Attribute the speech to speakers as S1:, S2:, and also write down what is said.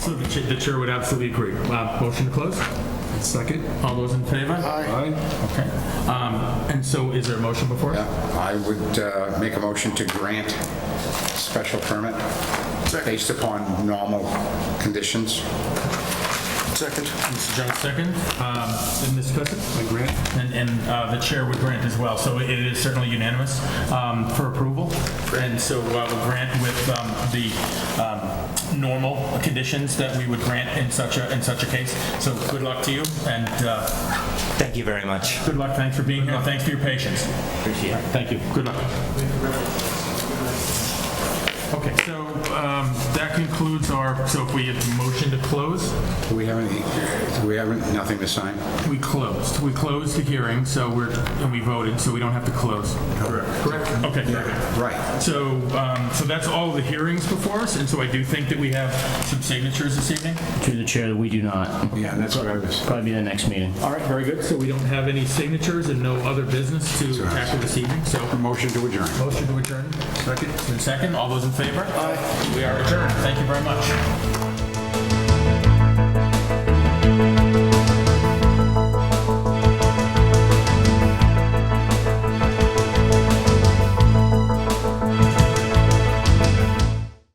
S1: So the chair, the chair would absolutely agree. Uh, Motion to close? Second. All those in favor?
S2: Aye.
S1: Okay. Um, And so is there a motion before? us?
S2: I would uh, make a motion to grant special permit based upon normal conditions.
S3: Second.
S1: Mr. Jones, second. Um, And Ms. Cusick?
S2: grant?
S1: And, and uh, the chair would grant as well. So it is certainly unanimous um, for approval. And so uh, we'll grant with um, the um, normal conditions that we would grant in such a, in such a case. So good luck to you and uh,
S4: Thank you very much.
S1: good luck. Thanks for being here. Thanks for your patience.
S4: Appreciate it.
S1: Thank you. Good luck. Okay, so um, that concludes our, so if we have a motion to close,
S2: Do we have any, do we have nothing to sign?
S1: we closed. We closed the hearing, so we're, and we voted, so we don't have to close. Correct. Okay, perfect.
S2: Right.
S1: So, um, so that's all the hearings before us, and so I do think that we have some signatures this evening.
S5: Through the chair, we do not.
S2: Yeah, that's what I was.
S5: Probably the next meeting.
S1: All right, very good. So we don't have any signatures and no other business to tackle this evening, so
S2: Motion to adjourn.
S1: motion to adjourn. Second. Second, all those in favor? Aye. We are adjourned. Thank you very much.